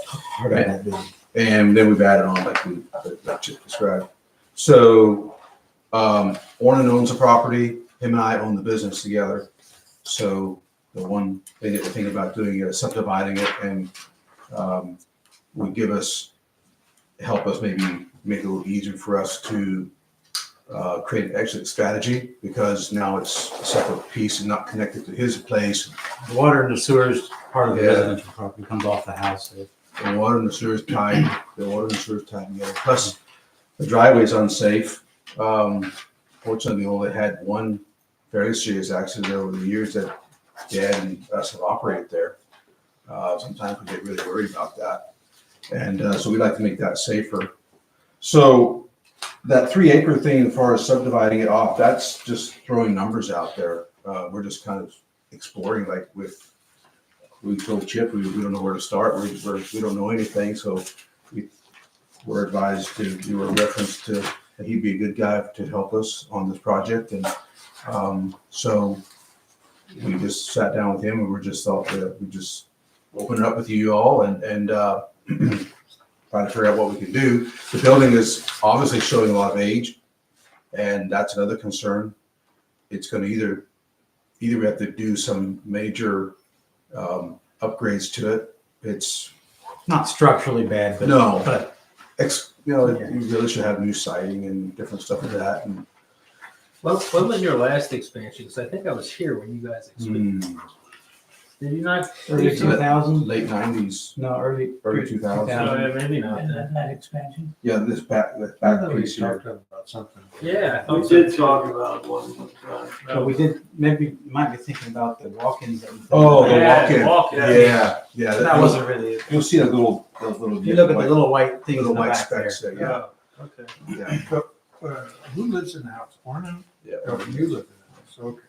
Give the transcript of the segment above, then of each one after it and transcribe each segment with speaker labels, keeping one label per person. Speaker 1: hard on that building. And then we've added on like we, like Chip described. So, um, Ornan owns the property, him and I own the business together. So the one thing that we're thinking about doing is subdividing it and, um, would give us, help us maybe make it a little easier for us to, uh, create an exit strategy because now it's a separate piece and not connected to his place.
Speaker 2: The Water and the sewer is part of the
Speaker 1: Yeah.
Speaker 2: residential property, comes off the house.
Speaker 1: the water and the sewer's tied, the water and the sewer's tied together, plus the driveway's unsafe. Um, fortunately, we only had one very serious accident over the years that Dad and us have operated there. Uh, sometimes we get really worried about that, and, uh, so we like to make that safer. So that three acre thing, as far as subdividing it off, that's just throwing numbers out there. Uh, we're just kind of exploring like with we told Chip, we, we don't know where to start, we, we're, we don't know anything, so we were advised to do a reference to, that he'd be a good guy to help us on this project, and, um, so we just sat down with him, and we just thought that we just open it up with you all and, and, uh, try to figure out what we can do. The building is obviously showing a lot of age, and that's another concern. It's gonna either, either we have to do some major, um, upgrades to it. It's
Speaker 2: Not structurally bad, but.
Speaker 1: No.
Speaker 2: But
Speaker 1: ex, you know, you really should have new siding and different stuff like that. And
Speaker 3: What, what was your last expansion? Because I think I was here when you guys expanded.
Speaker 2: Hmm.
Speaker 1: Hmm.
Speaker 3: Did you not?
Speaker 2: thirty-two thousand,
Speaker 1: late nineties,
Speaker 2: no, early.
Speaker 1: early two thousand.
Speaker 3: No, Uh, maybe not.
Speaker 4: expansion?
Speaker 1: Yeah, this back, this
Speaker 2: I
Speaker 1: back
Speaker 2: thought we
Speaker 1: piece here.
Speaker 2: talked about something.
Speaker 3: Yeah. I thought
Speaker 5: We
Speaker 3: so.
Speaker 5: did talk about one sometime.
Speaker 2: But we did, maybe, you might be thinking about the walk-ins. that we-
Speaker 1: Oh, the
Speaker 3: Yeah,
Speaker 1: walk-in.
Speaker 3: walk-in.
Speaker 1: Yeah, yeah.
Speaker 2: That wasn't really, it.
Speaker 1: You'll see a little, those little.
Speaker 2: if you look at the little white things in
Speaker 1: Little
Speaker 2: the
Speaker 1: white
Speaker 2: back there.
Speaker 1: specks there, yeah,
Speaker 5: Oh, okay.
Speaker 1: yeah,
Speaker 4: Uh, who lives in the house? Orno?
Speaker 1: yeah.
Speaker 4: Oh, you live in the house, okay.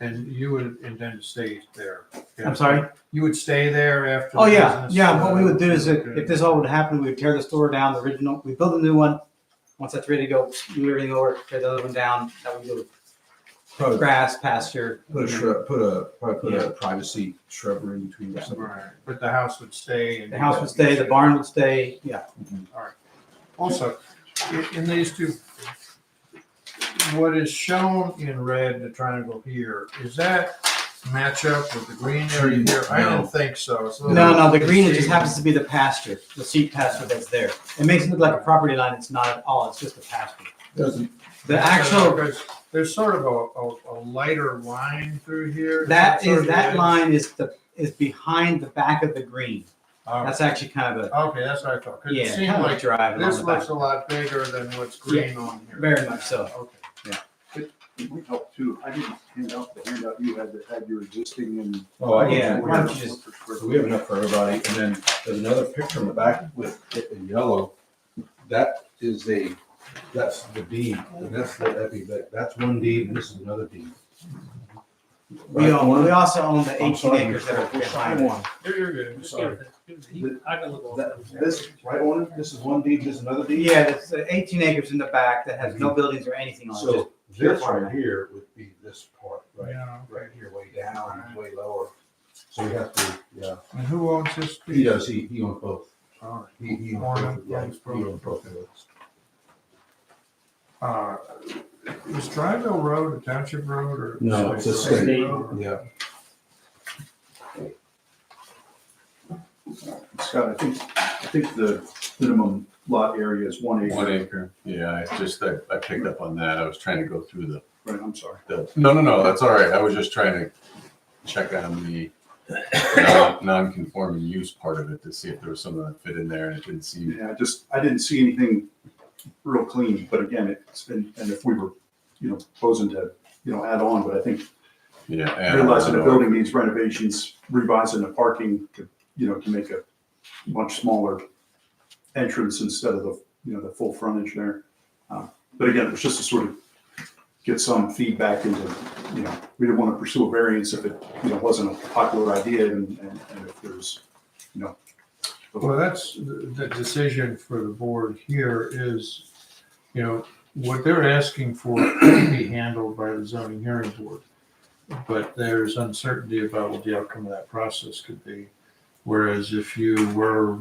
Speaker 4: And you would intend to stay there?
Speaker 2: I'm sorry?
Speaker 4: You would stay there after?
Speaker 2: Oh,
Speaker 4: the
Speaker 2: yeah,
Speaker 4: business,
Speaker 2: yeah, what
Speaker 4: uh,
Speaker 2: we would do is if,
Speaker 4: okay.
Speaker 2: if this all would happen, we would tear the store down, the original, we build a new one. Once that's ready to go, move everything over, tear the other one down, that would do
Speaker 1: Probably
Speaker 2: grass, pasture.
Speaker 1: put a shrub, put a, probably put a privacy shrubbery in between or something.
Speaker 4: Right, but the house would stay? and-
Speaker 2: The house would stay, the barn would stay, yeah.
Speaker 4: Also, in, in these two, what is shown in red, the triangle here, is that match up with the green area here? I
Speaker 1: No.
Speaker 4: didn't think so. It's a
Speaker 2: No,
Speaker 4: little-
Speaker 2: no, the green, it just happens to be the pasture, the sheep pasture that's there. It makes it look like a property line, it's not at all, it's just a pasture.
Speaker 1: Doesn't,
Speaker 2: The actual,
Speaker 4: There's- There's sort of a, a, a lighter line through here.
Speaker 2: that
Speaker 4: sort
Speaker 2: is,
Speaker 4: of
Speaker 2: that
Speaker 4: it?
Speaker 2: line is the, is behind the back of the green.
Speaker 4: Oh,
Speaker 2: That's actually kind of a,
Speaker 4: Okay, that's what I thought, 'cause
Speaker 2: yeah,
Speaker 4: it
Speaker 2: kind
Speaker 4: seemed
Speaker 2: of like
Speaker 4: like
Speaker 2: driving on
Speaker 4: this
Speaker 2: the back.
Speaker 4: looks a lot bigger than what's green on here.
Speaker 2: very much so.
Speaker 4: Okay.
Speaker 6: We helped too. I didn't hand out the handout you had that had your existing and.
Speaker 1: oh, I get
Speaker 2: Yeah,
Speaker 1: you.
Speaker 2: why don't you just-
Speaker 1: So we have enough for everybody. And then there's another picture in the back with it in yellow. That is a, that's the deed. And that's, that'd be, that- that's one deed and this is another deed.
Speaker 2: We own, we also own the
Speaker 1: I'm
Speaker 2: eighteen
Speaker 1: sorry,
Speaker 2: acres that are
Speaker 1: Mr.
Speaker 2: behind one.
Speaker 3: You're, you're good. Just
Speaker 1: Sorry.
Speaker 3: give it to- give it to- he- I can look all
Speaker 1: That,
Speaker 3: over it.
Speaker 1: this, right on it, this is one deed, this is another deed.
Speaker 2: Yeah, it's uh, eighteen acres in the back that has no buildings or anything on it. just-
Speaker 1: So this right here would be this part, right,
Speaker 4: Yeah.
Speaker 1: right here, way down, and way lower. So we have to, yeah,
Speaker 4: And who owns this? piece?
Speaker 1: he does, he, he owns both.
Speaker 4: All right.
Speaker 1: He, he owns both, yeah, he owns both of those.
Speaker 4: Uh, Is Dryville Road a township road or?
Speaker 1: No, it's a
Speaker 4: State
Speaker 3: state.
Speaker 4: road?
Speaker 1: Yeah.
Speaker 6: Scott, I think, I think the minimum lot area is one acre.
Speaker 7: One acre, yeah, I just, I, I picked up on that, I was trying to go through the,
Speaker 6: Right, I'm sorry.
Speaker 7: the, no, no, no, that's all right, I was just trying to check on the non- non-conforming use part of it to see if there was something that fit in there, and it didn't seem,
Speaker 6: Yeah, I just, I didn't see anything real clean, but again, it's been, and if we were, you know, proposing to, you know, add on, but I think
Speaker 7: yeah. and I don't
Speaker 6: realizing the
Speaker 7: know.
Speaker 6: building needs renovations, revising the parking, to, you know, to make a much smaller entrance instead of the, you know, the full frontage there. Um, But again, it was just to sort of get some feedback into, you know, we didn't want to pursue a variance if it, you know, wasn't a popular idea and, and and if there's, you know.
Speaker 4: Well, that's, the the decision for the board here is, you know, what they're asking for can be handled by the zoning hearing board. But there's uncertainty about what the outcome of that process could be. Whereas if you were